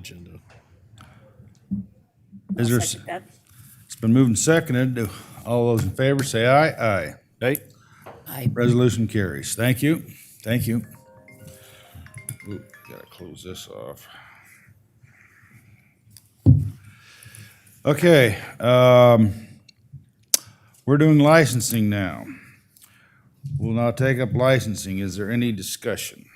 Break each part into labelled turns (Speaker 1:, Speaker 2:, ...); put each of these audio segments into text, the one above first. Speaker 1: agenda.
Speaker 2: Is there,
Speaker 3: Second that.
Speaker 2: it's been moved and seconded. Do- All those in favor say aye. Aye. Aye.
Speaker 3: Aye.
Speaker 2: Resolution carries. Thank you. Thank you. Ooh, Gotta close this off. Okay, um, we're doing licensing now. We'll now take up licensing. Is there any discussion?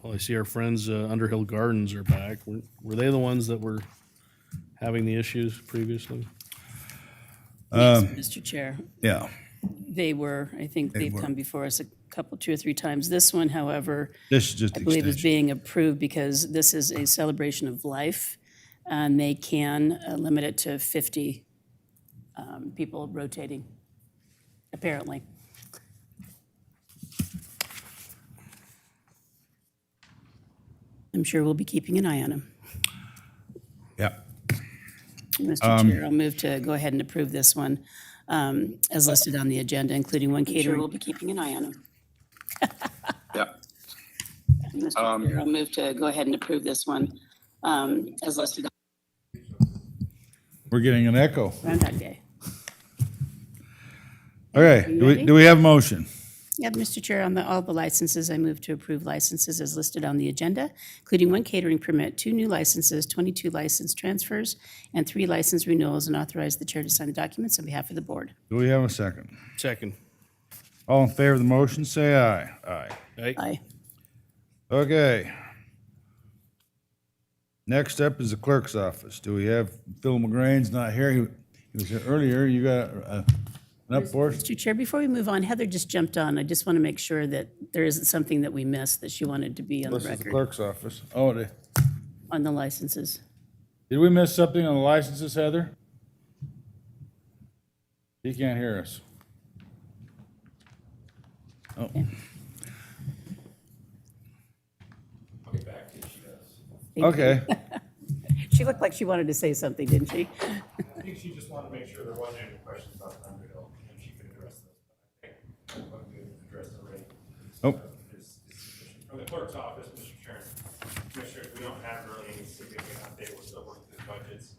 Speaker 1: Well, Oh, I see our friends, uh, Underhill Gardens are back. Were, were they the ones that were having the issues previously?
Speaker 2: um,
Speaker 3: Yes, Mr. Chair,
Speaker 2: Yeah,
Speaker 3: they were, I think they've
Speaker 2: were.
Speaker 3: come before us a couple, two or three times. This one, however,
Speaker 2: this is just
Speaker 3: I believe is
Speaker 2: extension.
Speaker 3: being approved because this is a celebration of life. And they can uh, limit it to 50 um, people rotating, apparently. I'm sure we'll be keeping an eye on them.
Speaker 2: Yeah.
Speaker 3: Mr. Chair, I'll move to go ahead and approve this one um, as listed on the agenda, including one caterer. We'll be keeping an eye on him.
Speaker 4: Yeah,
Speaker 3: Mr. Chair, I'll move to go ahead and approve this one um, as listed on
Speaker 2: We're getting an echo.
Speaker 3: Groundhog Day.
Speaker 2: Okay, do we, do we have a motion?
Speaker 3: Yep, Mr. Chair, on the, all the licenses, I move to approve licenses as listed on the agenda, including one catering permit, two new licenses, 22 license transfers, and three license renewals, and authorize the chair to sign the documents on behalf of the board.
Speaker 2: Do we have a second?
Speaker 1: Second.
Speaker 2: All in favor of the motion, say aye. Aye.
Speaker 1: Aye.
Speaker 3: Aye.
Speaker 2: Okay. Next up is the clerk's office. Do we have, Phil McGrain's not here. He he was here earlier. You got uh, an up for us?
Speaker 3: Mr. Chair, before we move on, Heather just jumped on. I just want to make sure that there isn't something that we missed that she wanted to be on the
Speaker 2: This is the
Speaker 3: record,
Speaker 2: clerk's office. Oh, did,
Speaker 3: on the licenses.
Speaker 2: did we miss something on the licenses, Heather? He can't hear us. Oh,
Speaker 3: Thank you.
Speaker 2: okay.
Speaker 3: She looked like she wanted to say something, didn't she?
Speaker 5: I think she just wanted to make sure there wasn't any questions about the Underhill, and she could address those. But I think what we addressed already
Speaker 2: Oh,
Speaker 5: is is sufficient. From the clerk's office, Mr. Chairman, Commissioners, we don't have really any significant update. We're still working through budgets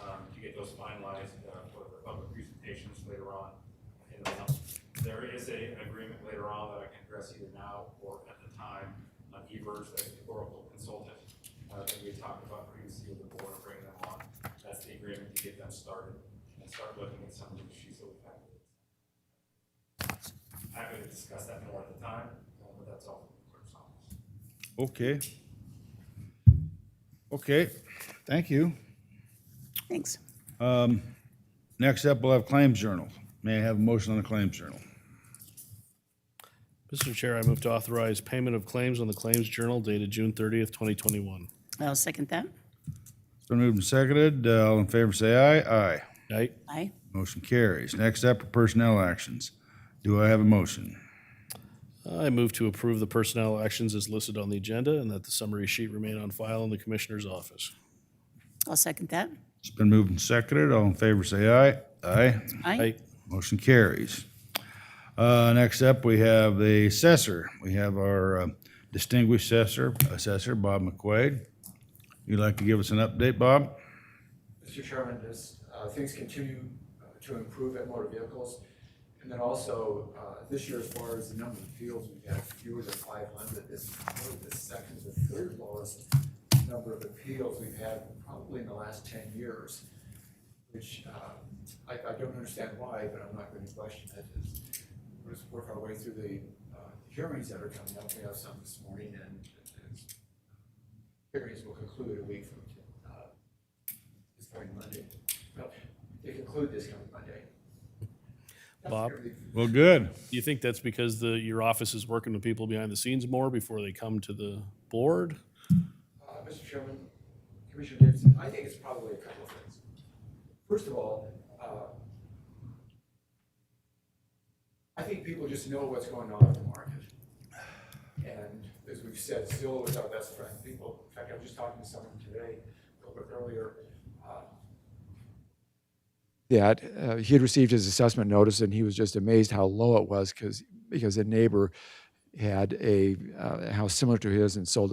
Speaker 5: um, to get those finalized uh, for the public presentations later on in the month. There is a- an agreement later on that I can address either now or at the time on Evers, the Oracle consultant uh, that we talked about previously with the board, bringing them on. That's the agreement to get them started and start looking at some of the issues that we've had. Happy to discuss that more at the time, uh, but that's all from the clerk's office.
Speaker 2: okay. Okay, thank you.
Speaker 3: Thanks.
Speaker 2: Next up, we'll have claims journal. May I have a motion on the claims journal?
Speaker 1: Mr. Chair, I move to authorize payment of claims on the Claims Journal dated June thirtieth, twenty twenty-one.
Speaker 3: I'll second that.
Speaker 2: It's been moved and seconded. Uh, All in favor, say aye. Aye.
Speaker 1: Aye.
Speaker 3: Aye.
Speaker 2: Motion carries. Next up are personnel actions. Do I have a motion?
Speaker 1: I move to approve the personnel actions as listed on the agenda and that the summary sheet remain on file in the Commissioner's office.
Speaker 3: I'll second that.
Speaker 2: It's been moved and seconded. All in favor, say aye. Aye.
Speaker 1: Aye.
Speaker 2: Motion carries. Uh, Next up, we have the assessor. We have our uh, distinguished assessor, assessor Bob McQuaid. You'd like to give us an update, Bob?
Speaker 6: Mr. Chairman, as uh, things continue uh, to improve at motor vehicles, and then also, uh, this year as far as the number of fields, we've had fewer than five hundred. This is probably the second or third lowest number of appeals we've had probably in the last ten years, which uh, I I don't understand why, but I'm not going to question it. It's- We'll just work our way through the uh, hearings that are coming up. We have some this morning, and it's- hearings will conclude a week from uh, this coming Monday. Well, They conclude this coming Monday.
Speaker 1: Bob,
Speaker 2: Well, good.
Speaker 1: do you think that's because the, your office is working with people behind the scenes more before they come to the board?
Speaker 6: Uh, Mr. Chairman, Commissioner Davidson, I think it's probably a couple of things. First of all, uh, I think people just know what's going on in the market. And as we've said, Zillow is our best friend. People, in fact, I was just talking to someone today, a little bit earlier, uh,
Speaker 7: that uh, he had received his assessment notice and he was just amazed how low it was because because a neighbor had a uh, house similar to his and sold it